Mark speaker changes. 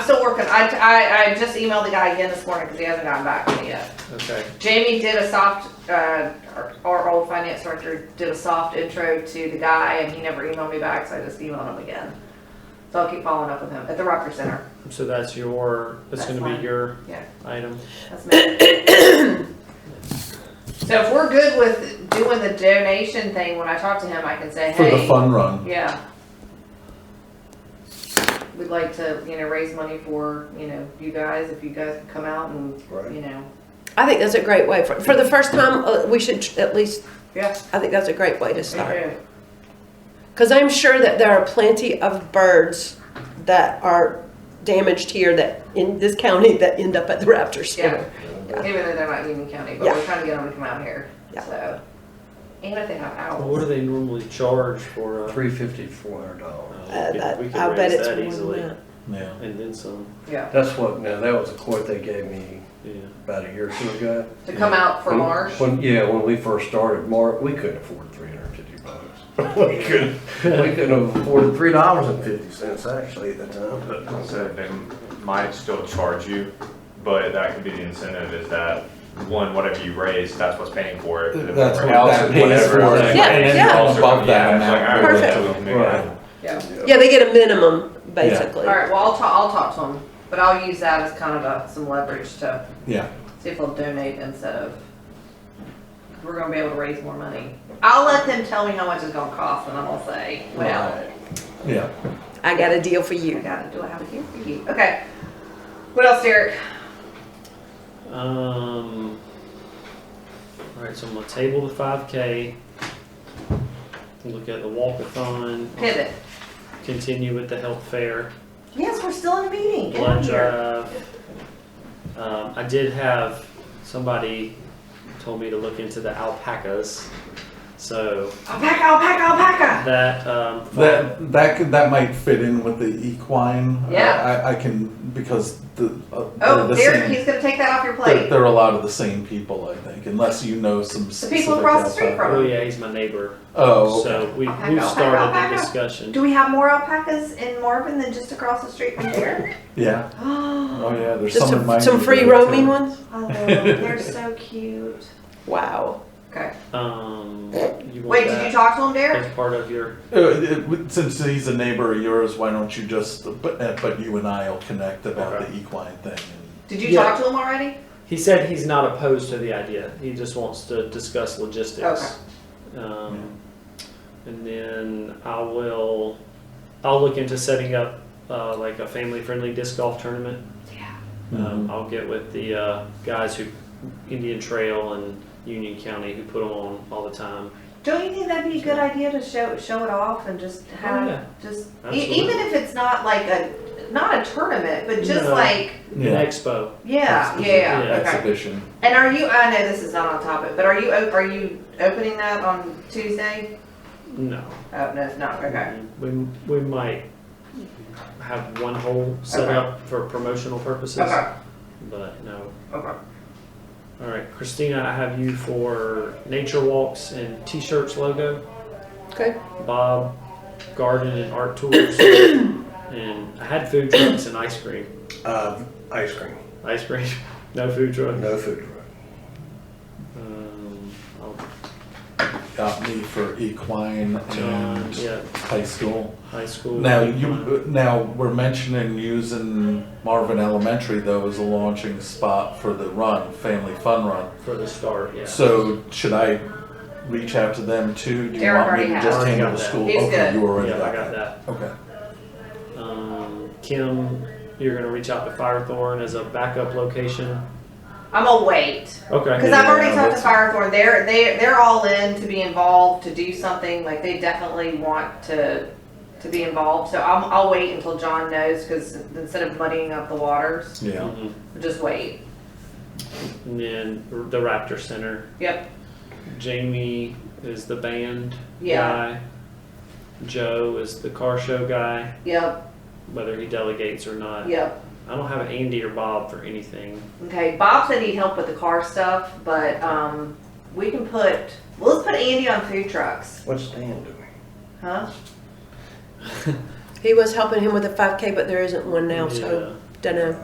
Speaker 1: still working. I, I, I just emailed the guy again this morning because he hasn't gotten back to me yet.
Speaker 2: Okay,
Speaker 1: Jamie did a soft, uh, our, our old finance director did a soft intro to the guy and he never emailed me back, so I just emailed him again. So I'll keep following up with him at the Rutgers Center.
Speaker 2: so that's your, that's
Speaker 1: That's
Speaker 2: gonna
Speaker 1: mine.
Speaker 2: be your
Speaker 1: Yeah.
Speaker 2: item.
Speaker 1: That's me. So if we're good with doing the donation thing, when I talk to him, I can say,
Speaker 3: for the
Speaker 1: hey,
Speaker 3: fun run.
Speaker 1: yeah. We'd like to, you know, raise money for, you know, you guys, if you guys can come out and,
Speaker 3: Right.
Speaker 1: you know,
Speaker 4: I think that's a great way for, for the first time. Uh, we should tr- at least.
Speaker 1: yeah.
Speaker 4: I think that's a great way to start
Speaker 1: okay.
Speaker 4: because I'm sure that there are plenty of birds that are damaged here that in this county that end up at the raptor
Speaker 1: Yeah,
Speaker 4: center.
Speaker 1: even though they're not Union County, but
Speaker 4: Yeah.
Speaker 1: we're trying to get them to come out here,
Speaker 4: Yeah.
Speaker 1: so. And if they have
Speaker 2: Well,
Speaker 1: owls.
Speaker 2: What do they normally charge for a?
Speaker 5: Three fifty, four hundred dollars.
Speaker 4: Uh, that,
Speaker 2: We could
Speaker 4: I bet
Speaker 2: raise
Speaker 4: it's
Speaker 2: that
Speaker 4: more
Speaker 2: easily,
Speaker 4: than that.
Speaker 3: Yeah.
Speaker 2: And then some,
Speaker 1: yeah,
Speaker 5: That's what, now, that was a quote they gave me
Speaker 2: yeah.
Speaker 5: about a year or two ago.
Speaker 1: to come out for
Speaker 5: When-
Speaker 1: Marsh.
Speaker 5: When, yeah, when we first started, Mar, we couldn't afford three hundred and fifty bucks. We couldn't, we couldn't afford three dollars and fifty cents actually at the time, but.
Speaker 6: So they might still charge you, but that could be the incentive is that, one, whatever you raise, that's what's paying for it. If
Speaker 3: That's
Speaker 6: for
Speaker 3: what
Speaker 6: else,
Speaker 3: that
Speaker 6: if
Speaker 3: pays
Speaker 6: whatever,
Speaker 3: for it.
Speaker 6: like,
Speaker 4: Yeah,
Speaker 6: and then
Speaker 4: yeah.
Speaker 6: also-
Speaker 3: Above that
Speaker 6: yeah, it's like,
Speaker 3: amount.
Speaker 6: I would
Speaker 4: Perfect.
Speaker 6: still make
Speaker 5: Right.
Speaker 6: it.
Speaker 1: Yeah.
Speaker 4: Yeah, they get a minimum basically.
Speaker 1: All right, well, I'll talk, I'll talk to them, but I'll use that as kind of a, some leverage to
Speaker 3: Yeah.
Speaker 1: see if they'll donate instead of, we're gonna be able to raise more money. I'll let them tell me how much it's gonna cost and I'm gonna say, well,
Speaker 3: Yeah.
Speaker 4: I got a deal for
Speaker 1: I
Speaker 4: you.
Speaker 1: got it, do I have a gift for you? Okay. What else, Derek?
Speaker 2: Um, all right, so I'm gonna table the five K. Look at the walkathon,
Speaker 1: Pivot.
Speaker 2: continue with the health fair,
Speaker 1: Yes, we're still in a meeting. Get out
Speaker 2: blood
Speaker 1: of here.
Speaker 2: drive. Um, I did have, somebody told me to look into the alpacas, so
Speaker 1: Alpaca, alpaca, alpaca.
Speaker 2: that, um.
Speaker 3: That that could, that might fit in with the equine.
Speaker 1: Yeah.
Speaker 3: I, I can because the uh, they're
Speaker 1: Oh,
Speaker 3: the
Speaker 1: Derek,
Speaker 3: same-
Speaker 1: he's gonna take that off your
Speaker 3: they're,
Speaker 1: plate.
Speaker 3: they're a lot of the same people, I think, unless you know some.
Speaker 1: The people across the street from
Speaker 2: Oh
Speaker 1: him.
Speaker 2: yeah, he's my neighbor,
Speaker 3: Oh, okay.
Speaker 2: so we,
Speaker 1: Alpaca,
Speaker 2: we've
Speaker 1: alpaca,
Speaker 2: started the
Speaker 1: alpaca.
Speaker 2: discussion.
Speaker 1: Do we have more alpacas in Marvin than just across the street from here?
Speaker 3: yeah.
Speaker 1: Oh,
Speaker 3: Oh yeah. There's
Speaker 4: Just
Speaker 3: some in my
Speaker 4: some, some free
Speaker 3: neighborhood,
Speaker 4: roaming
Speaker 3: too.
Speaker 4: ones.
Speaker 1: they're so cute.
Speaker 4: Wow.
Speaker 1: Okay.
Speaker 2: Um, you
Speaker 1: Wait,
Speaker 2: want
Speaker 1: did you
Speaker 2: that
Speaker 1: talk to him, Derek?
Speaker 2: as part of your,
Speaker 3: Uh, uh, Since he's a neighbor of yours, why don't you just? But uh, but you and I will connect about
Speaker 2: Okay.
Speaker 3: the equine thing.
Speaker 1: Did you
Speaker 2: Yeah.
Speaker 1: talk to him already?
Speaker 2: He said he's not opposed to the idea. He just wants to discuss logistics. Um, and then I will, I'll look into setting up uh, like a family-friendly disc golf tournament.
Speaker 1: Yeah.
Speaker 2: Um,
Speaker 3: Mm-hmm.
Speaker 2: I'll get with the uh, guys who Indian Trail and Union County who put them on all the time.
Speaker 1: Don't you think that'd be a good idea to show show it off and just have
Speaker 2: yeah.
Speaker 1: just e-
Speaker 2: Absolutely.
Speaker 1: even if it's not like a not a tournament, but just
Speaker 2: No.
Speaker 1: like
Speaker 2: An expo.
Speaker 1: yeah, yeah, yeah,
Speaker 2: Yeah.
Speaker 1: okay.
Speaker 3: Exhibition.
Speaker 1: And are you? I know this is not on topic, but are you op- are you opening that on Tuesday?
Speaker 2: No,
Speaker 1: Oh no, it's not. Okay.
Speaker 2: we we might have one hole set
Speaker 1: Okay.
Speaker 2: up for promotional purposes,
Speaker 1: Okay.
Speaker 2: but no,
Speaker 1: Okay.
Speaker 2: All right, Christina, I have you for nature walks and t-shirts logo.
Speaker 4: Okay.
Speaker 2: Bob, garden and art tours. and I had food trucks and ice cream.
Speaker 5: Uh, ice cream,
Speaker 2: Ice cream, no food truck.
Speaker 5: no food truck.
Speaker 2: Um, I'll-
Speaker 3: Got me for equine
Speaker 2: John,
Speaker 3: and
Speaker 2: yeah,
Speaker 3: high school.
Speaker 2: high school.
Speaker 3: Now you now we're mentioning using Marvin Elementary though as a launching spot for the run, family fun run.
Speaker 2: for the start, yeah.
Speaker 3: So should I reach out to them too? Do you
Speaker 1: Derek
Speaker 3: want me to
Speaker 1: already
Speaker 3: just
Speaker 2: has.
Speaker 3: handle
Speaker 2: Got
Speaker 3: the
Speaker 2: that.
Speaker 3: school?
Speaker 1: He's
Speaker 3: okay,
Speaker 1: good.
Speaker 3: you already
Speaker 2: yeah,
Speaker 3: got,
Speaker 2: I got that.
Speaker 3: Okay.
Speaker 2: Um, Kim, you're gonna reach out to Firethorn as a backup location.
Speaker 1: I'm gonna wait.
Speaker 2: Okay.
Speaker 1: Because I've already
Speaker 3: Yeah,
Speaker 1: talked to
Speaker 3: that's-
Speaker 1: Firethorn, they're, they, they're all in to be involved, to do something, like they definitely want to, to be involved. So I'm, I'll wait until John knows, because instead of muddying up the waters,
Speaker 3: Yeah.
Speaker 2: Mhm.
Speaker 1: just wait.
Speaker 2: And then the Raptor Center.
Speaker 1: Yep,
Speaker 2: Jamie is the band
Speaker 1: Yeah.
Speaker 2: guy. Joe is the car show guy,
Speaker 1: yep,
Speaker 2: whether he delegates or not.
Speaker 1: yep.
Speaker 2: I don't have Andy or Bob for anything.
Speaker 1: Okay, Bob said he'd help with the car stuff, but, um, we can put, well, let's put Andy on food trucks,
Speaker 5: What's Dan doing?
Speaker 1: huh?
Speaker 4: He was helping him with a 5K, but there isn't one now, so.
Speaker 2: Yeah.
Speaker 4: Dunno.